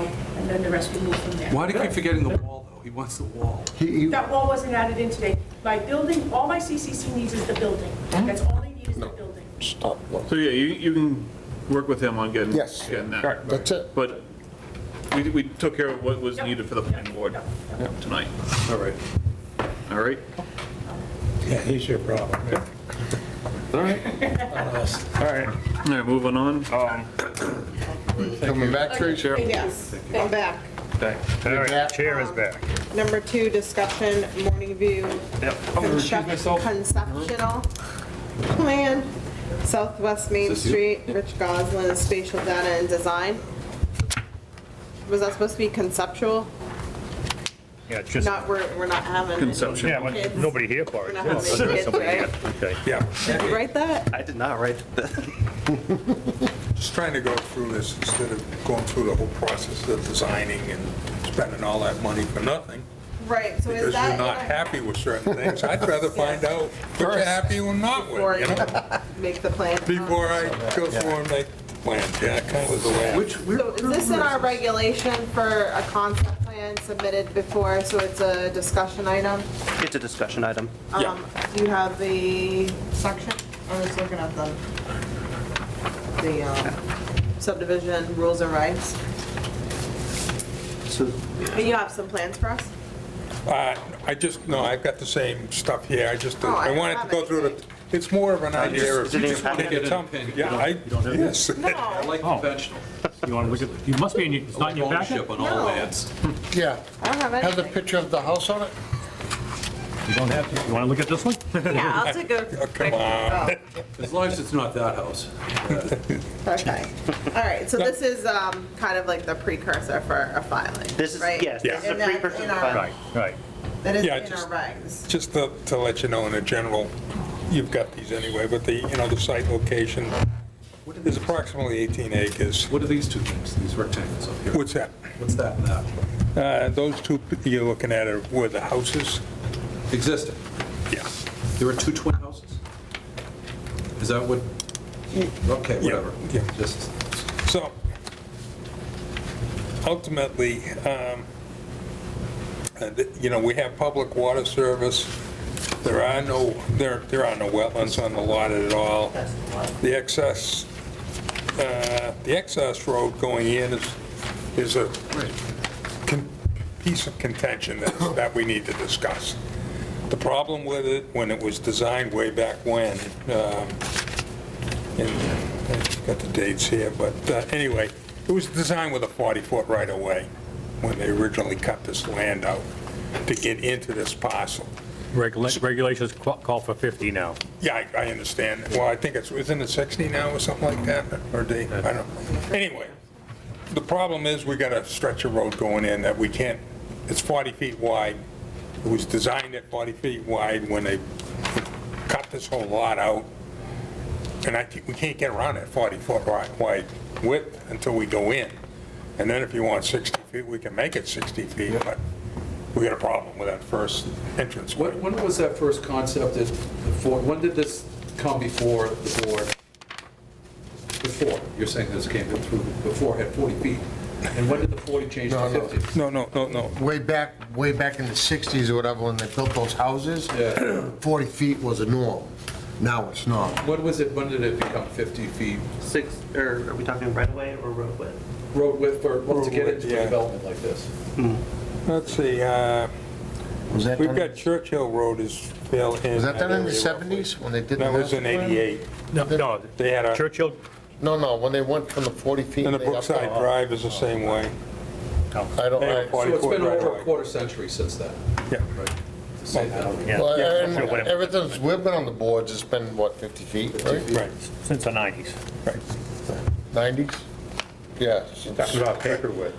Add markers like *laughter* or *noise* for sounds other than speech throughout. then the rest we move from there. Why do you keep forgetting the wall, though? He wants the wall. He- he- That wall wasn't added in today. My building, all my CCC needs is the building. That's all they need is the building. Stop, look. So yeah, you, you can work with him on getting, Yes. getting that. Right, that's it. But we, we took care of what was needed for the planning board tonight. All right. All right? Yeah, he's your problem. All right. All right. All right, moving on. Um, Coming back, Tracy? Chair. Yes, I'm back. thank- All right, chair is back. Number two, discussion, morning view. Yep. construct- Conceptual plan, Southwest Main Street, Rich Goslin, spatial data and design. Was that supposed to be conceptual? Yeah, just, Not, we're, we're not having. any- Conception. yeah, but nobody here for We're it. not having any kids, right? Okay. Yeah. Did you write that? I did not write that. Just trying to go through this instead of going through the whole process of designing and spending all that money for nothing, Right, so because is you're that? not happy with certain things. I'd *laughs* rather find out what you're happy or not Before with, you you know? make the plan. Before I go through and make the plans, yeah, kind of the way. Which, So is this in our regulation for a concept plan submitted before, so it's a discussion item? It's a discussion item. Um, Do you have the section? I'm just looking at the, the um, subdivision rules and rights. So And you have some plans for *laughs* us? Uh, I just, no, I've got the same stuff here, I just, Oh, I I don't wanted to have go through the, anything. it's more of an idea of, is it in you your just want to packet? get something. Yeah, I, have it? yes. I like conventional. You want to look at, you must be in, your- it's not in your packet? Oh. Ownership on all No. lands. Yeah. I don't Has have a anything. picture of the house on it? You don't have to. You want to look at this one? Yeah, I'll take a. Oh, *laughs* come on. As long as it's not that *laughs* house. Oh, Okay, all right, so this is um, kind of like the precursor for a filing, This is, right? yes, this is a And that's precursor in to our- filing. *laughs* Right, right. That is in Yeah, our just- regs. Just to, to let you know in a general, you've got these anyway, but the, you know, the site location is approximately 18 acres. What are these two things, these rectangles up here? What's that? What's that and that? Uh, Those two p- you're looking at are where the houses? Existing. Yeah. There are two twin houses? Is that what? Okay, Yeah, whatever. yeah. Just, So ultimately, um, uh, th- you know, we have public water service. There are no, there, there are no wetlands on the lot at all. The excess, uh, the excess road going in is, is a con- piece of contention that, that we need to discuss. The problem with it, when it was designed way back when, um, and I've got the dates here, but uh, anyway, it was designed with a 40-foot right-of-way when they originally cut this land out to get into this parcel. Regula- Regulations qu- call for 50 now. Yeah, I, I understand. Well, I think it's, isn't it 60 now or something like that, or they, I don't know. Anyway, the problem is, we got a stretch of road going in that we can't, it's 40 feet wide. It was designed at 40 feet wide when they cut this whole lot out. And I, think we can't get around that 40-foot wide width until we go in. And then if you want 60 feet, we can make it 60 feet, but we got a problem with that first entrance. when, when was that first concept that, before, when did this come before the board? Before, you're saying this came in through, before had 40 feet. And when did the 40 change to No, no. 50? No, no, no, no. Way back, way back in the 60s or whatever, when they built those houses, *clears throat* 40 feet was a norm. Now it's not. When was it, when did it become 50 feet six, or are we talking right away or road width? road width for, to get width, into yeah. a development like this? Let's see, uh, Was that we've done- got Churchill Road is fail in. Was that done in the area. 70s when they did the That was master in plan? 88. No, no. They had a, Churchill, No, no, when they went from the 40 feet. and the they upped it Brookside up. Drive is the same way. I don't, They were I- 40 So it's foot been right over away. a quarter century since then, Yeah. Oh, right? To say that. yeah, well, yeah, and Churchill, whatever, everything's, we've been on the boards, it's been, what, 50 feet, right? Right, since the 90s. right. 90s? Yeah. since- our paper with.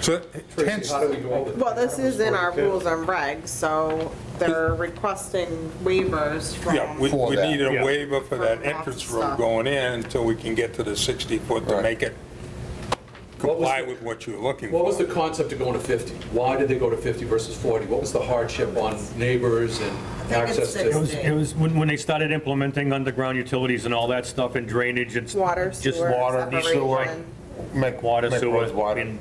So Tracy, hence, how do we go over that? Well, this is in our rules and regs, so they're requesting waivers yeah, we from, For we that. need a Yeah. waiver for that entrance road going in until we can get to the 60 foot to Right. make it What was comply the- with what you're looking What was for. the concept of going to 50? Why did they go to 50 versus 40? What was the hardship on neighbors and think it's access to? It was, it was when, when they started implementing underground utilities and all that stuff and drainage and. Water, Just sewer, water, separation. sewer, Make water, make roads sewer. wider. and